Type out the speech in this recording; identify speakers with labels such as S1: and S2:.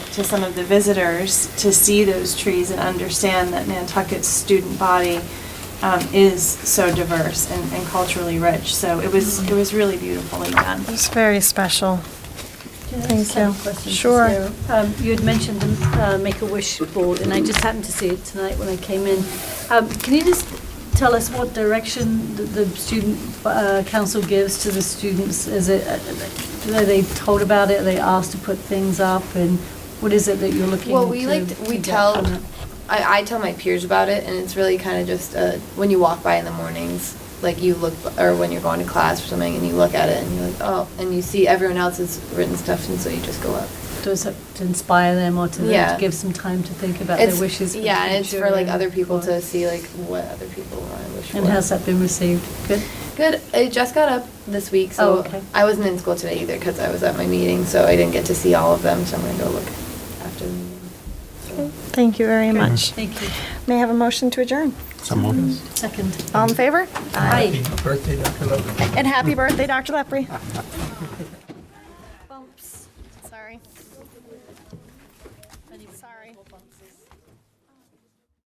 S1: to some of the visitors to see those trees and understand that Nantucket's student body um, is so diverse and and culturally rich. So it was, it was really beautifully done.
S2: It's very special.
S3: Can I
S2: Thank
S3: just have a
S2: you.
S3: question for
S2: Sure.
S3: Sarah? Um, You had mentioned the uh, Make-A-Wish board, and I just happened to see it tonight when I came in. Um, Can you just tell us what direction the- the student uh, council gives to the students? Is it, uh, are they told about it, are they asked to put things up, and what is it that you're looking to?
S4: Well, we like,
S3: to
S4: we
S3: get
S4: tell,
S3: from it?
S4: I, I tell my peers about it, and it's really kind of just, uh, when you walk by in the mornings, like you look, or when you're going to class or something, and you look at it, and you're like, oh, and you see everyone else has written stuff, and so you just go up.
S3: Does it to inspire them or to them
S4: Yeah.
S3: to give some time to think about their
S4: It's-
S3: wishes? for the
S4: Yeah, and it's for
S3: future
S4: like
S3: and
S4: other people
S3: what-
S4: to see like what other people want to wish for.
S3: And how's that been received? Good?
S4: Good. It just got up this week,
S3: Oh,
S4: so
S3: okay.
S4: I wasn't in school today either because I was at my meeting, so I didn't get to see all of them. So I'm gonna go look after the meeting. So.
S2: Thank you very
S3: Good.
S2: much.
S3: Thank you.
S2: May I have a motion to adjourn?
S5: Some
S4: Mm.
S5: moved.
S3: Second.
S2: All in favor?
S3: Aye.
S6: Happy birthday, Dr. Love.
S2: And happy birthday, Dr. Lepre. Sorry. Sorry.